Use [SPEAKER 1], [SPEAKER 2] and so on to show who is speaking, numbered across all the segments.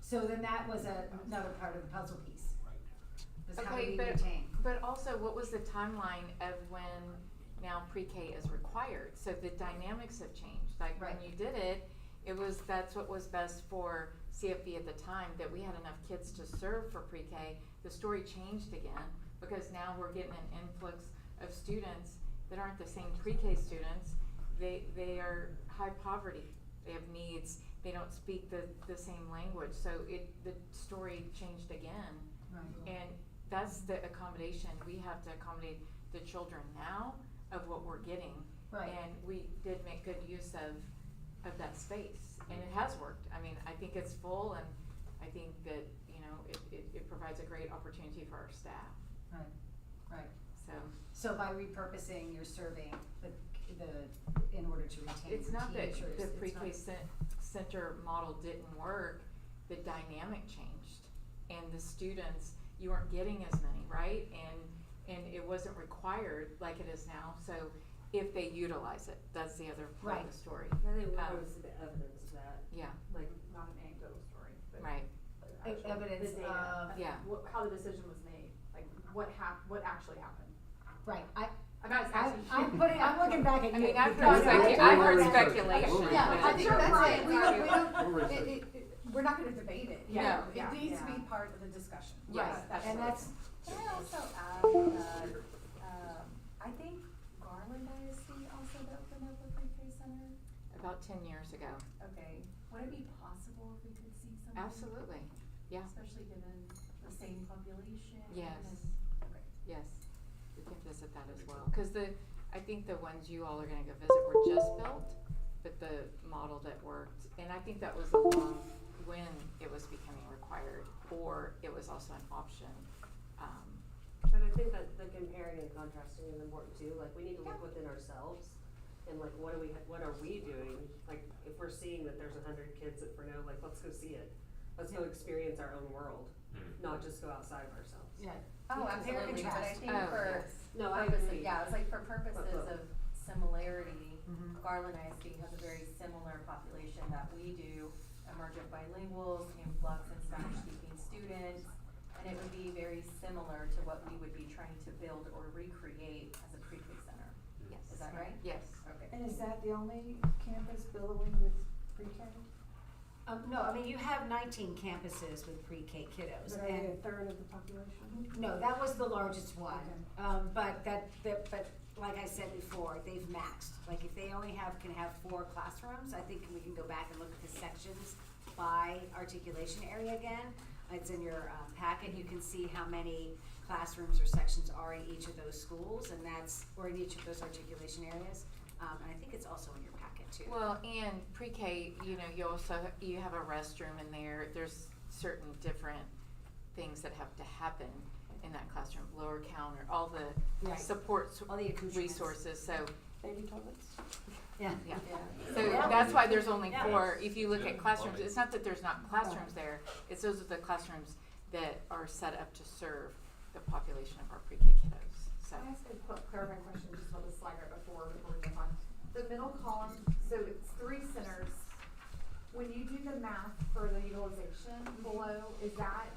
[SPEAKER 1] So then that was a, another part of the puzzle piece, was how do
[SPEAKER 2] Okay,
[SPEAKER 1] we
[SPEAKER 2] but-
[SPEAKER 1] retain?
[SPEAKER 2] But also, what was the timeline of when now pre-K is required? So the dynamics have changed. Like when
[SPEAKER 1] Right.
[SPEAKER 2] you did it, it was, that's what was best for CFB at the time, that we had enough kids to serve for pre-K. The story changed again because now we're getting an influx of students that aren't the same pre-K students. They, they are high poverty. They have needs. They don't speak the, the same language. So it, the story changed again.
[SPEAKER 1] Right.
[SPEAKER 2] And that's the accommodation, we have to accommodate the children now of what we're getting.
[SPEAKER 1] Right.
[SPEAKER 2] And we did make good use of, of that space, and it has worked, I mean, I think it's full, and I think that, you know, it, it, it provides a great opportunity for our staff,
[SPEAKER 1] Right, right.
[SPEAKER 2] so.
[SPEAKER 1] So by repurposing, you're serving the, the, in order to retain
[SPEAKER 2] It's not that
[SPEAKER 1] teachers.
[SPEAKER 2] the
[SPEAKER 1] it's
[SPEAKER 2] pre-K
[SPEAKER 1] not-
[SPEAKER 2] cen- center model didn't work, the dynamic changed. And the students, you weren't getting as many, right? And, and it wasn't required like it is now, so if they utilize it, that's the other part of
[SPEAKER 1] Right.
[SPEAKER 2] the story.
[SPEAKER 3] I think
[SPEAKER 2] Um,
[SPEAKER 3] there was some evidence of that,
[SPEAKER 2] Yeah,
[SPEAKER 3] like.
[SPEAKER 4] not an anecdotal story, but.
[SPEAKER 2] right,
[SPEAKER 4] but
[SPEAKER 1] E-
[SPEAKER 4] actual-
[SPEAKER 1] evidence
[SPEAKER 4] the data,
[SPEAKER 1] of-
[SPEAKER 2] Yeah.
[SPEAKER 4] what- how the decision was made, like what hap, what actually happened.
[SPEAKER 1] Right, I,
[SPEAKER 4] I'm not
[SPEAKER 1] I,
[SPEAKER 4] asking.
[SPEAKER 1] I'm putting, I'm looking back at
[SPEAKER 2] I
[SPEAKER 1] you.
[SPEAKER 2] mean, I've
[SPEAKER 1] because
[SPEAKER 2] thought specu- I've heard
[SPEAKER 1] I-
[SPEAKER 2] speculation.
[SPEAKER 1] Yeah, I think
[SPEAKER 4] Sure,
[SPEAKER 1] that's it,
[SPEAKER 4] Brian,
[SPEAKER 1] we don't, we
[SPEAKER 4] Brian.
[SPEAKER 1] don't,
[SPEAKER 5] We'll
[SPEAKER 1] it,
[SPEAKER 5] research.
[SPEAKER 1] it, it- we're not gonna debate it.
[SPEAKER 2] Yeah,
[SPEAKER 1] No,
[SPEAKER 4] yeah,
[SPEAKER 1] It needs to
[SPEAKER 4] yeah.
[SPEAKER 1] be part of the discussion.
[SPEAKER 2] Yes,
[SPEAKER 1] Right, and
[SPEAKER 2] absolutely.
[SPEAKER 1] that's,
[SPEAKER 6] Can I also add, uh, um, I think Garland ISD also opened up a pre-K center?
[SPEAKER 2] about ten years ago,
[SPEAKER 6] Okay, would it be possible if we could see something?
[SPEAKER 2] absolutely, yeah,
[SPEAKER 6] Especially given the same population? and-
[SPEAKER 2] Yes.
[SPEAKER 6] Okay.
[SPEAKER 2] yes, we can visit that as well. Cause the, I think the ones you all are gonna go visit were just built, but the model that worked, and I think that was along when it was becoming required, or it was also an option, um,
[SPEAKER 3] But I think that the comparing and contrasting is important too, like we need to look
[SPEAKER 6] Yeah.
[SPEAKER 3] within ourselves and like what are we, what are we doing? Like if we're seeing that there's a hundred kids at Fresno, like let's go see it. Let's go experience our own world, not just go outside of ourselves.
[SPEAKER 1] yeah.
[SPEAKER 6] Oh,
[SPEAKER 1] Yeah, compare and
[SPEAKER 6] absolutely, but I
[SPEAKER 1] contrast.
[SPEAKER 6] think
[SPEAKER 2] Oh,
[SPEAKER 6] for
[SPEAKER 2] yes.
[SPEAKER 3] No, I
[SPEAKER 6] purposes,
[SPEAKER 3] agree.
[SPEAKER 6] yeah, it's like for purposes
[SPEAKER 3] look.
[SPEAKER 6] of similarity,
[SPEAKER 1] Mhm.
[SPEAKER 6] Garland ISD has a very similar population that we do, emergent bilinguals, influx and Spanish-speaking students, and it would be very similar to what we would be trying to build or recreate as a pre-K center.
[SPEAKER 2] yes.
[SPEAKER 6] Is that right?
[SPEAKER 2] Yes.
[SPEAKER 6] Okay.
[SPEAKER 7] And is that the only campus billowing with pre-K?
[SPEAKER 8] Um, no, I mean, you have nineteen campuses with pre-K
[SPEAKER 7] Is
[SPEAKER 8] kiddos
[SPEAKER 7] that only a
[SPEAKER 8] and,
[SPEAKER 7] third of the population?
[SPEAKER 8] no, that was the largest one. Um, but that, that, but like I said before, they've maxed. Like if they only have, can have four classrooms, I think we can go back and look at the sections by articulation area again. It's in your um, packet, you can see how many classrooms or sections are in each of those schools and that's, or in each of those articulation areas. Um, and I think it's also in your packet too.
[SPEAKER 2] Well, and pre-K, you know, you also, you have a restroom in there, there's certain different things that have to happen in that classroom, lower counter, all the
[SPEAKER 8] Right.
[SPEAKER 2] supports,
[SPEAKER 8] All the accoutrements.
[SPEAKER 2] resources, so,
[SPEAKER 7] Baby toilets?
[SPEAKER 8] Yeah.
[SPEAKER 2] yeah.
[SPEAKER 6] Yeah.
[SPEAKER 2] So
[SPEAKER 8] Yeah.
[SPEAKER 2] that's why there's only
[SPEAKER 8] Yeah.
[SPEAKER 2] four, if you look
[SPEAKER 5] Yeah,
[SPEAKER 2] at classrooms,
[SPEAKER 5] plumbing.
[SPEAKER 2] it's not that there's not classrooms there, it's those are the classrooms that are set up to serve the population of our pre-K kiddos, so.
[SPEAKER 4] Can I ask a quick clarifying question just about the slide right before, before we move on? The middle column, so it's three centers. When you do the math for the utilization below, is that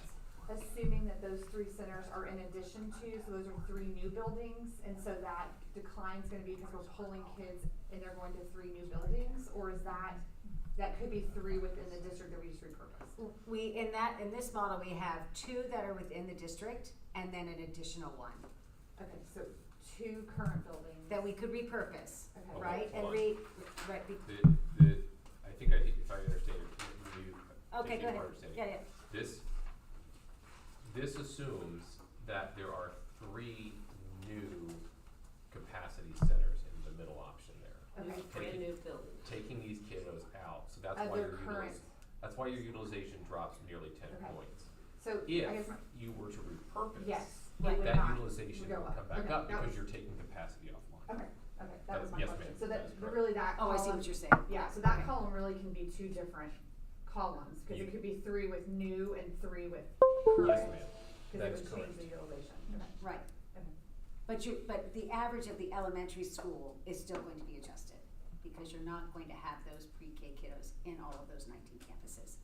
[SPEAKER 4] assuming that those three centers are in addition to, so those are three new buildings? And so that decline's gonna be because we're pulling kids and they're going to three new buildings? Or is that, that could be three within the district that we just repurposed?
[SPEAKER 8] We, in that, in this model, we have two that are within the district and then an additional one
[SPEAKER 4] Okay, so two current buildings.
[SPEAKER 8] that we could repurpose,
[SPEAKER 4] Okay.
[SPEAKER 8] right? And
[SPEAKER 5] hold on.
[SPEAKER 8] re, right, be-
[SPEAKER 5] The, the, I think I, if I understand your, you, if
[SPEAKER 8] okay,
[SPEAKER 5] you
[SPEAKER 8] go
[SPEAKER 5] are
[SPEAKER 8] ahead.
[SPEAKER 5] understanding.
[SPEAKER 8] Yeah, yeah.
[SPEAKER 5] This, this assumes that there are three new capacity centers in the middle option there.
[SPEAKER 4] Okay.
[SPEAKER 3] Brand new building.
[SPEAKER 5] Taking these kiddos out, so Oh, that's
[SPEAKER 4] Of
[SPEAKER 5] why
[SPEAKER 4] their
[SPEAKER 5] your
[SPEAKER 4] current-
[SPEAKER 5] utiliz- that's why your utilization drops nearly ten
[SPEAKER 4] Okay.
[SPEAKER 5] points.
[SPEAKER 4] So I
[SPEAKER 5] If
[SPEAKER 4] guess, my-
[SPEAKER 5] you were to repurpose,
[SPEAKER 4] yes, it would
[SPEAKER 5] that
[SPEAKER 4] not.
[SPEAKER 5] utilization
[SPEAKER 4] go
[SPEAKER 5] would
[SPEAKER 4] up.
[SPEAKER 5] come back
[SPEAKER 4] Okay,
[SPEAKER 5] up
[SPEAKER 4] that
[SPEAKER 5] because
[SPEAKER 4] was-
[SPEAKER 5] you're taking capacity offline.
[SPEAKER 4] Okay, okay,
[SPEAKER 5] That-
[SPEAKER 4] that was my
[SPEAKER 5] yes,
[SPEAKER 4] question.
[SPEAKER 5] ma'am,
[SPEAKER 4] So
[SPEAKER 5] that
[SPEAKER 4] that,
[SPEAKER 5] is correct.
[SPEAKER 4] really that
[SPEAKER 8] Oh, I see
[SPEAKER 4] column,
[SPEAKER 8] what you're saying.
[SPEAKER 4] yeah, so that
[SPEAKER 8] Okay.
[SPEAKER 4] column really can be two different columns, cause
[SPEAKER 5] You-
[SPEAKER 4] it could be three with new and three with
[SPEAKER 5] Yes,
[SPEAKER 4] current,
[SPEAKER 5] ma'am.
[SPEAKER 4] cause
[SPEAKER 5] That
[SPEAKER 4] it
[SPEAKER 5] is
[SPEAKER 4] would change
[SPEAKER 5] correct.
[SPEAKER 4] the utilization.
[SPEAKER 8] Right.
[SPEAKER 4] Okay.
[SPEAKER 8] But you, but the average of the elementary school is still going to be adjusted because you're not going to have those pre-K kiddos in all of those nineteen campuses.